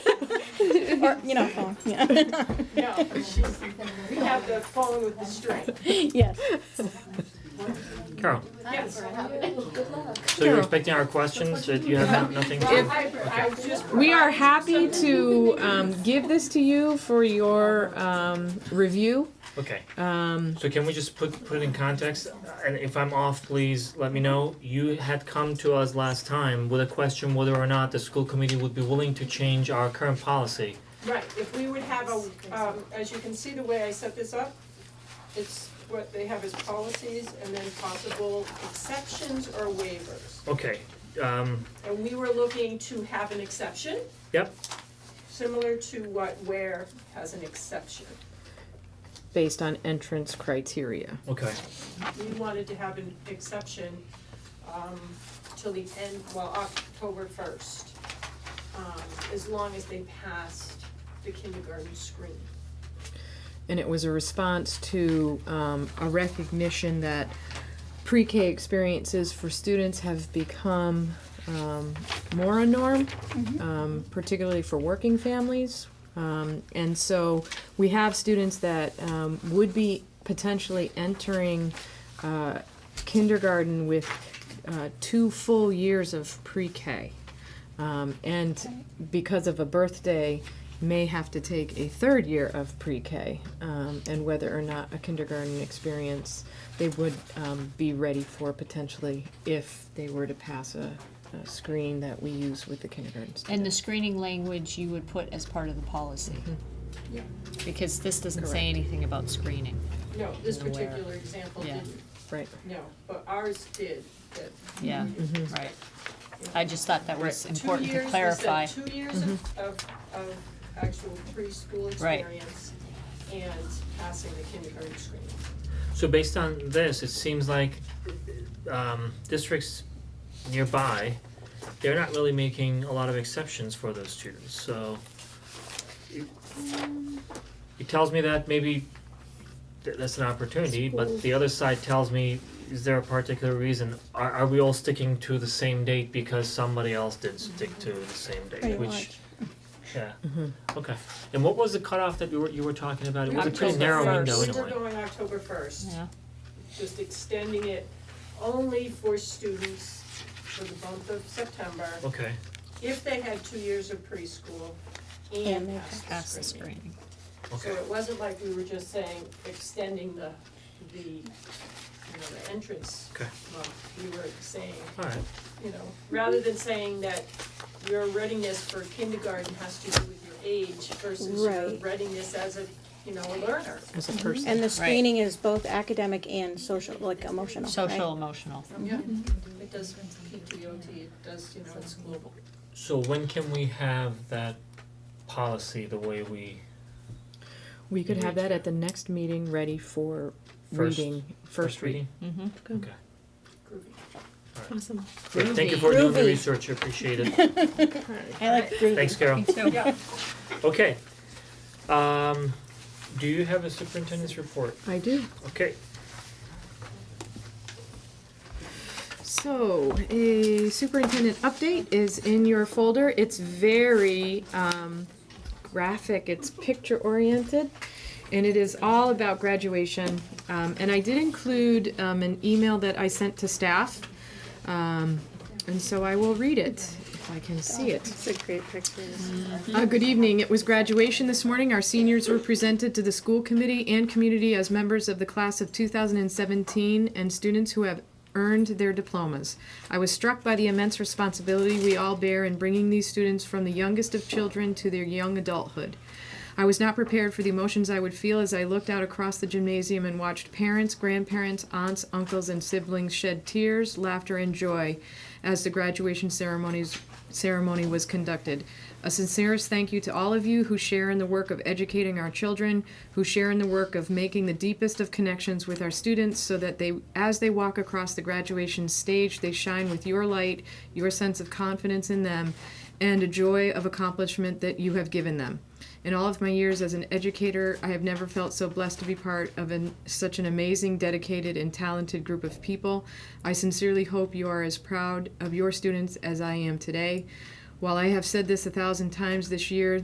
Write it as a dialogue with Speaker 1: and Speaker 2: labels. Speaker 1: or, you know, phone, yeah.
Speaker 2: No, we have the phone with the string.
Speaker 1: Yes.
Speaker 3: Carol,
Speaker 2: Yes.
Speaker 3: so you're expecting our questions, that you have no- nothing
Speaker 2: Well,
Speaker 3: to?
Speaker 2: I, I just.
Speaker 4: We are happy to um, give this to you for your um, review.
Speaker 3: Okay,
Speaker 4: Um,
Speaker 3: so can we just put, put it in context, and if I'm off, please let me know. You had come to us last time with a question whether or not the school committee would be willing to change our current policy.
Speaker 2: Right, if we would have a, um, as you can see the way I set this up, it's what they have as policies and then possible exceptions or waivers.
Speaker 3: Okay, um,
Speaker 2: And we were looking to have an exception.
Speaker 3: Yep.
Speaker 2: Similar to what Ware has an exception.
Speaker 4: based on entrance criteria.
Speaker 3: okay,
Speaker 2: We wanted to have an exception, um, till the end, well, October first. Um, as long as they passed the kindergarten screen.
Speaker 4: And it was a response to um, a recognition that pre K experiences for students have become um, more a norm, um, particularly for working families. Um, and so we have students that um, would be potentially entering uh, kindergarten with uh, two full years of pre K. Um, and because of a birthday, may have to take a third year of pre-K, um, and whether or not a kindergarten experience they would um, be ready for potentially if they were to pass a, a screen that we use with the kindergarten
Speaker 5: And
Speaker 4: students.
Speaker 5: the screening language you would put as part of the policy.
Speaker 2: Yeah.
Speaker 5: Because this doesn't
Speaker 4: Correct.
Speaker 5: say anything about screening.
Speaker 2: No, this
Speaker 5: Nowhere.
Speaker 2: particular example
Speaker 5: Yeah.
Speaker 2: didn't,
Speaker 4: Right.
Speaker 2: no, but ours did, that.
Speaker 5: Yeah, right. I just thought that was
Speaker 2: Right.
Speaker 5: important to clarify. Mm-hmm.
Speaker 2: Two years, we said two years of, of, of actual preschool
Speaker 5: Right.
Speaker 2: experience and passing the kindergarten screening.
Speaker 3: so based on this, it seems like, um, districts nearby, they're not really making a lot of exceptions for those students, so. it- It tells me that maybe th- that's an opportunity, but the other side tells me, is there a particular reason? Are are we all sticking to the same date because somebody else did stick to the same
Speaker 1: Pretty
Speaker 3: date, which,
Speaker 1: much.
Speaker 3: yeah, okay. And what was the cutoff that you were you were talking about? It was a pretty
Speaker 5: October
Speaker 3: narrow window in a way.
Speaker 2: We were going October first,
Speaker 5: Yeah,
Speaker 2: just extending it only for students for the month of September,
Speaker 3: Okay,
Speaker 2: if they had two years of preschool
Speaker 1: And
Speaker 2: and
Speaker 1: they
Speaker 5: pass
Speaker 2: passed
Speaker 5: the
Speaker 2: the screening.
Speaker 5: screening.
Speaker 2: So
Speaker 3: okay,
Speaker 2: it wasn't like we were just saying extending the, the, you know, the entrance.
Speaker 3: Okay.
Speaker 2: Well, we were saying,
Speaker 3: alright,
Speaker 2: you know, rather than saying that your readiness for kindergarten has to do with your age versus your
Speaker 1: Right.
Speaker 2: readiness as a, you know, a learner.
Speaker 4: As a person.
Speaker 1: And the screening is both academic and social, like emotional, right?
Speaker 5: Social, emotional.
Speaker 2: Yeah. It does PTOT, it does, you know, it's global.
Speaker 3: so when can we have that policy the way we,
Speaker 4: We could have
Speaker 3: Read.
Speaker 4: that at the next meeting, ready for
Speaker 3: First-
Speaker 4: reading,
Speaker 3: first reading?
Speaker 5: Mm-hmm.
Speaker 2: Groovy.
Speaker 4: Awesome.
Speaker 3: Great, Thank you for doing the
Speaker 1: Groovy.
Speaker 3: research, I appreciate it,
Speaker 1: I like
Speaker 3: thanks
Speaker 1: groovy.
Speaker 3: Carol,
Speaker 5: So,
Speaker 2: Yeah,
Speaker 3: okay. Um, do you have a superintendent's report?
Speaker 4: I do.
Speaker 3: Okay,
Speaker 4: So, a superintendent update is in your folder. It's very um, graphic, it's picture oriented, and it is all about graduation. Um, and I did include um, an email that I sent to staff, um, and so I will read it if I can see it.
Speaker 1: It's a great picture.
Speaker 4: Uh, good evening. It was graduation this morning. Our seniors were presented to the school committee and community as members of the class of 2017 and students who have earned their diplomas. I was struck by the immense responsibility we all bear in bringing these students from the youngest of children to their young adulthood. I was not prepared for the emotions I would feel as I looked out across the gymnasium and watched parents, grandparents, aunts, uncles, and siblings shed tears, laughter, and joy as the graduation ceremonies ceremony was conducted. A sincerest thank you to all of you who share in the work of educating our children, who share in the work of making the deepest of connections with our students so that they as they walk across the graduation stage, they shine with your light, your sense of confidence in them, and a joy of accomplishment that you have given them. In all of my years as an educator, I have never felt so blessed to be part of an, such an amazing, dedicated, and talented group of people. I sincerely hope you are as proud of your students as I am today. While I have said this a thousand times this year,